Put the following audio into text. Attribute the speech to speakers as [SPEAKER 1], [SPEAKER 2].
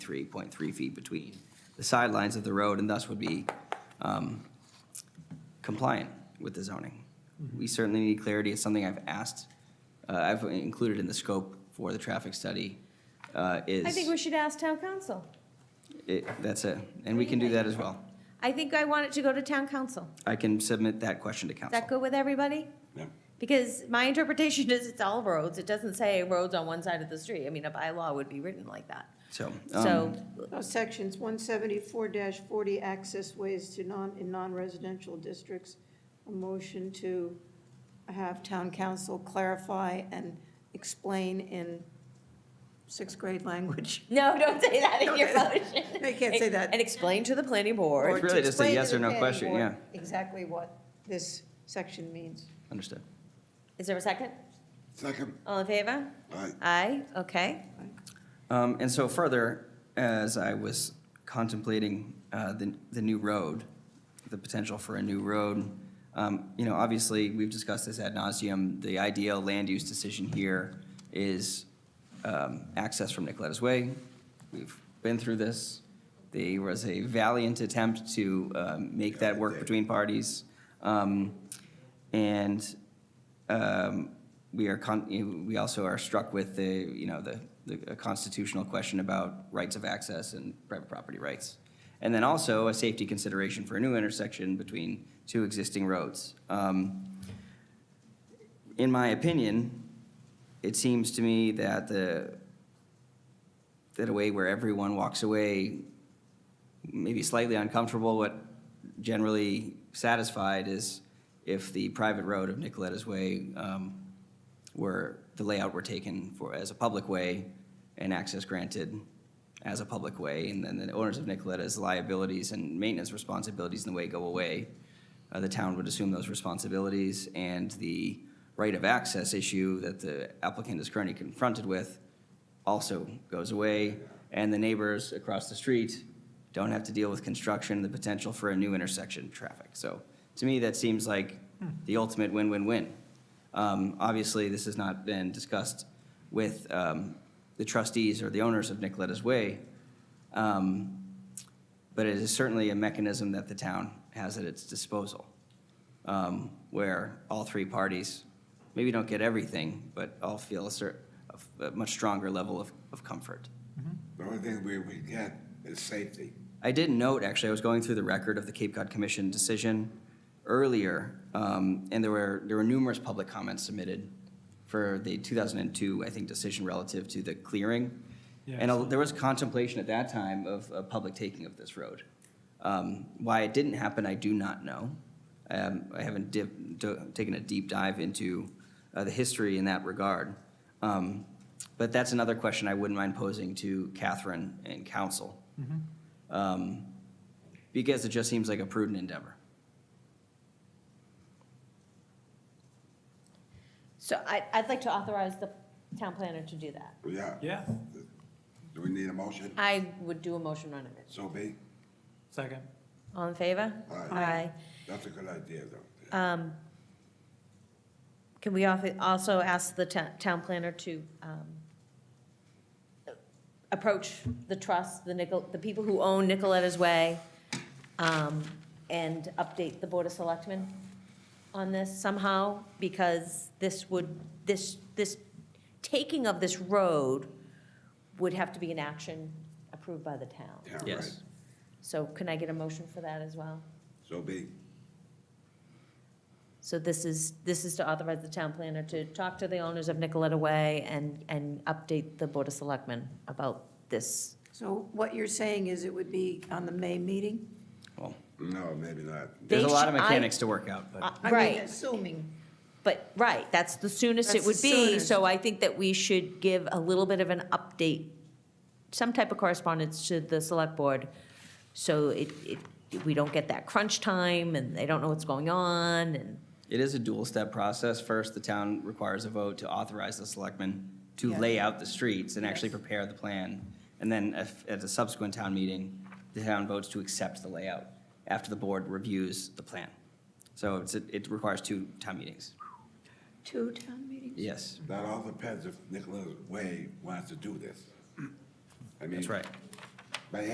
[SPEAKER 1] three point three feet between the sidelines of the road and thus would be um, compliant with the zoning. We certainly need clarity. It's something I've asked, uh, I've included in the scope for the traffic study uh, is.
[SPEAKER 2] I think we should ask town council.
[SPEAKER 1] It, that's it, and we can do that as well.
[SPEAKER 2] I think I want it to go to town council.
[SPEAKER 1] I can submit that question to
[SPEAKER 2] Is that
[SPEAKER 1] council.
[SPEAKER 2] good with everybody?
[SPEAKER 3] Yeah.
[SPEAKER 2] Because my interpretation is it's all roads. It doesn't say roads on one side of the street. I mean, a bylaw would be written like that.
[SPEAKER 1] So,
[SPEAKER 2] So,
[SPEAKER 1] um,
[SPEAKER 4] Uh, Sections 174-40 access ways to non, in non-residential districts. A motion to have town council clarify and explain in sixth grade language.
[SPEAKER 2] no, don't say that in your motion.
[SPEAKER 4] They can't say that.
[SPEAKER 2] And explain to the planning
[SPEAKER 4] Or
[SPEAKER 2] board.
[SPEAKER 4] to
[SPEAKER 1] really just a
[SPEAKER 4] explain to
[SPEAKER 1] yes
[SPEAKER 4] the
[SPEAKER 1] or no
[SPEAKER 4] planning
[SPEAKER 1] question,
[SPEAKER 4] board
[SPEAKER 1] yeah.
[SPEAKER 4] Exactly what this section means.
[SPEAKER 1] understood.
[SPEAKER 2] Is there a second?
[SPEAKER 3] Second, uh,
[SPEAKER 2] All in favor?
[SPEAKER 3] aye.
[SPEAKER 2] Aye, okay.
[SPEAKER 1] Um, and so further, as I was contemplating, uh, the, the new road, the potential for a new road, um, you know, obviously, we've discussed this ad nauseum. The ideal land use decision here is, um, access from Nicoletta's Way. We've been through this. There was a valiant attempt to, um, make that work between parties. Um, and um, we are, con- you know, we also are struck with the, you know, the the constitutional question about rights of access and private property rights. And then also a safety consideration for a new intersection between two existing roads. Um, In my opinion, it seems to me that the, that a way where everyone walks away maybe slightly uncomfortable, but generally satisfied is if the private road of Nicoletta's Way um, were, the layout were taken for, as a public way and access granted as a public way, and then the owners of Nicoletta's liabilities and maintenance responsibilities in the way go away. Uh, The town would assume those responsibilities, and the right of access issue that the applicant is currently confronted with also goes away, and the neighbors across the street don't have to deal with construction, the potential for a new intersection traffic. So to me, that seems like the ultimate win-win-win. Um, Obviously, this has not been discussed with um, the trustees or the owners of Nicoletta's Way, um, but it is certainly a mechanism that the town has at its disposal, um, where all three parties maybe don't get everything, but all feel a cer, a much stronger level of, of comfort.
[SPEAKER 3] The only thing we would get is safety.
[SPEAKER 1] I did note, actually, I was going through the record of the Cape Cod Commission decision earlier, um, and there were, there were numerous public comments submitted for the 2002, I think, decision relative to the clearing. And a- there was contemplation at that time of, of public taking of this road. Um, Why it didn't happen, I do not know. Um, I haven't dip- do- taken a deep dive into uh, the history in that regard. Um, But that's another question I wouldn't mind posing to Catherine and council um, because it just seems like a prudent endeavor.
[SPEAKER 2] So I, I'd like to authorize the town planner to do that.
[SPEAKER 3] Yeah.
[SPEAKER 5] Yeah,
[SPEAKER 3] Do we need a motion?
[SPEAKER 2] I would do a motion on it.
[SPEAKER 3] So be.
[SPEAKER 5] second.
[SPEAKER 2] All in favor?
[SPEAKER 3] Aye. That's a good idea, though.
[SPEAKER 2] Um, Can we offer- also ask the to- town planner to um, approach the trust, the Nicol, the people who own Nicoletta's Way, um, and update the Board of Selectmen on this somehow? Because this would, this, this, taking of this road would have to be an action approved by the town.
[SPEAKER 3] Yeah, right.
[SPEAKER 1] Yes.
[SPEAKER 2] So can I get a motion for that as well?
[SPEAKER 3] So be.
[SPEAKER 2] So this is, this is to authorize the town planner to talk to the owners of Nicoletta Way and, and update the Board of Selectmen about this.
[SPEAKER 4] So what you're saying is it would be on the May meeting?
[SPEAKER 1] Well,
[SPEAKER 3] No, maybe not.
[SPEAKER 1] there's a
[SPEAKER 2] They
[SPEAKER 1] lot of
[SPEAKER 2] should- I- Uh,
[SPEAKER 1] mechanics to work out, but.
[SPEAKER 4] I mean,
[SPEAKER 2] Right,
[SPEAKER 4] Assuming.
[SPEAKER 2] but, right, that's the soonest it
[SPEAKER 4] That's
[SPEAKER 2] would
[SPEAKER 4] the
[SPEAKER 2] be,
[SPEAKER 4] soonest.
[SPEAKER 2] so I think that we should give a little bit of an update, some type of correspondence to the select board, so it, it, we don't get that crunch time, and they don't know what's going on, and,
[SPEAKER 1] It is a dual-step process. First, the town requires a vote to authorize the selectmen to
[SPEAKER 4] Yeah.
[SPEAKER 1] lay out the streets and actually prepare the plan. And then if- at a subsequent town meeting, the town votes to accept the layout after the board reviews the plan. So it's, it requires two town meetings.
[SPEAKER 4] Two town meetings?
[SPEAKER 1] Yes,
[SPEAKER 3] That all depends if Nicholas Way wants to do this. I mean,
[SPEAKER 1] that's right.